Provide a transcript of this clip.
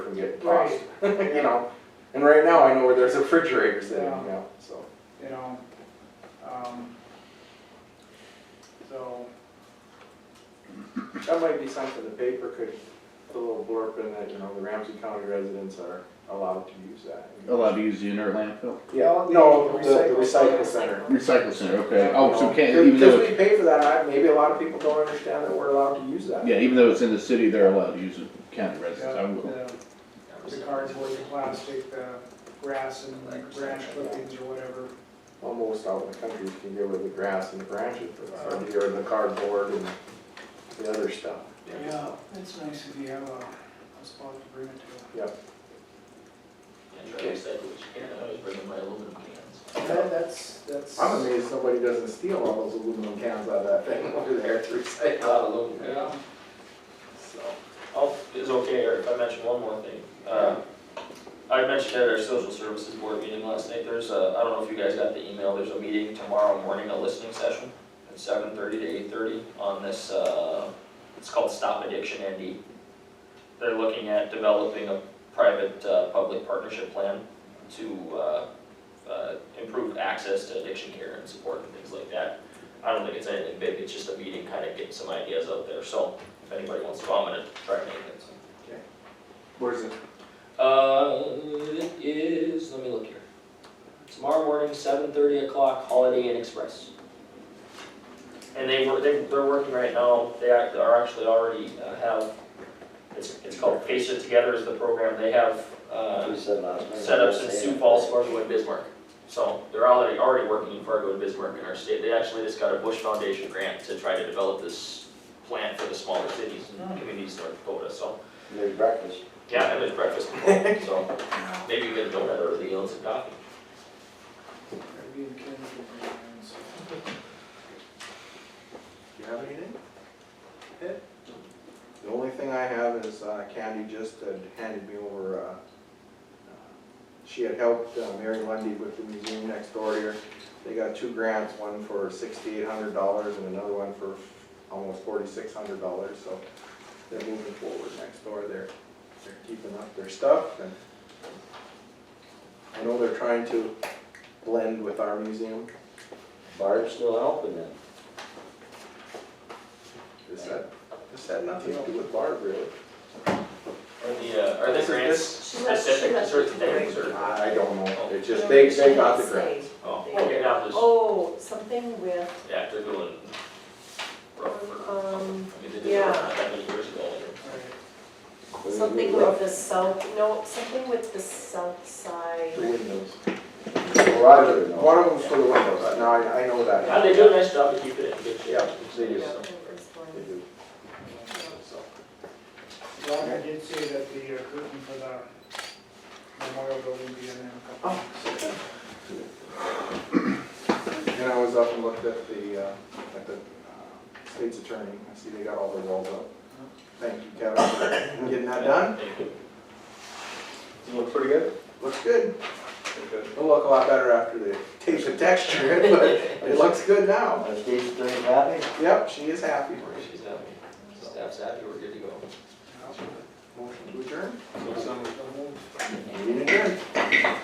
from getting Right. tossed, Yeah. you know? And right now, I know where there's a refrigerator sitting, you Yeah. know, so. you know, um, so, That might be something the paper could put a little blurb in that, you know, the Ramsey County residents are allowed to use that. allowed to use the inert landfill? Yeah, no, the the recycle center. Recycle center, okay, oh, so You can, know, even Because though, we pay for that, I- maybe a lot of people don't understand that we're allowed to use that. yeah, even though it's in the city, they're allowed to use it, county residents, I yeah, will. the, the cardboard, the plastic, the grass and branch clippings or whatever. Almost out in the country, you can get rid of the grass and the branches, but out here, the cardboard and the other stuff. Yeah, it's nice if you have a, a spot to bring it to. And try to recycle what you can, I always bring in my aluminum cans. That- that's, that's. I'm amazed somebody doesn't steal all those aluminum cans out of that thing over there to A recycle, lot of aluminum. Yeah, so. Oh, it's okay, Eric, if I mention one more thing. Uh, I mentioned at our social services board meeting last night, there's a, I don't know if you guys got the email, there's a meeting tomorrow morning, a listening session at seven thirty to eight thirty on this, uh, it's called Stop Addiction ND. They're looking at developing a private, uh, public partnership plan to, uh, uh, improve access to addiction care and support and things like that. I don't think it's anything big, it's just a meeting, kind of getting some ideas out there, so if anybody wants to, I'm gonna try to make it. so. Where's it? Uh, it is, let me look here. Tomorrow morning, seven thirty o'clock, Holiday Inn Express. And they were, they, they're working right now, they act- are actually already uh, have, it's, it's called Face It Together is the program, they have, uh, We said last night. set ups in Sioux Falls, Fargo, and Bismarck. So they're already, already working in Fargo and Bismarck in our state. They actually just got a Bush Foundation grant to try to develop this plan for the smaller cities Hmm. and communities in North Dakota, so. There's breakfast. Yeah, and there's breakfast, so maybe you get a donut or the ounce of coffee. maybe in Kansas, and so. Do you have anything? Ed? The only thing I have is uh, Candy just had handed me over, uh, uh, she had helped uh, Mary Lundy with the museum next door here. They got two grants, one for sixty-eight hundred dollars and another one for almost forty-six hundred dollars, so they're moving forward next door. They're, they're keeping up their stuff and I know they're trying to blend with our museum. Barb's still helping them. This had, this had nothing to do with Barb, really. Are the, uh, are the This is- grants She left- she specific to left certain the things or? I don't know, it's just, they, they got the grant. Oh, okay, now there's, Oh, something with, yeah, they're doing rough for, I mean, um, they did it Yeah. not that many years ago. something Mm-hmm. with the south, no, something with the south The side. windows. Roger, One no. of them's for the windows, now I, I know that. Yeah, they do a nice job to keep it in good shape. Yeah, they do. Yeah, there was one. They do. So, Roger did say that the uh, curtain for the memorial building be in there a Oh. couple And I was up and looked at the, uh, at the uh, state's attorney, I see they got all their walls up. Thank you, Kevin, for getting that done. Thank you. It looks pretty good. Looks good. It'll look a lot better after they tape the texture in, but it looks good now. Are Steve's doing happy? Yep, she is happy. She's happy, staff's happy, we're good to go. Motion to adjourn? of them. Meeting adjourned.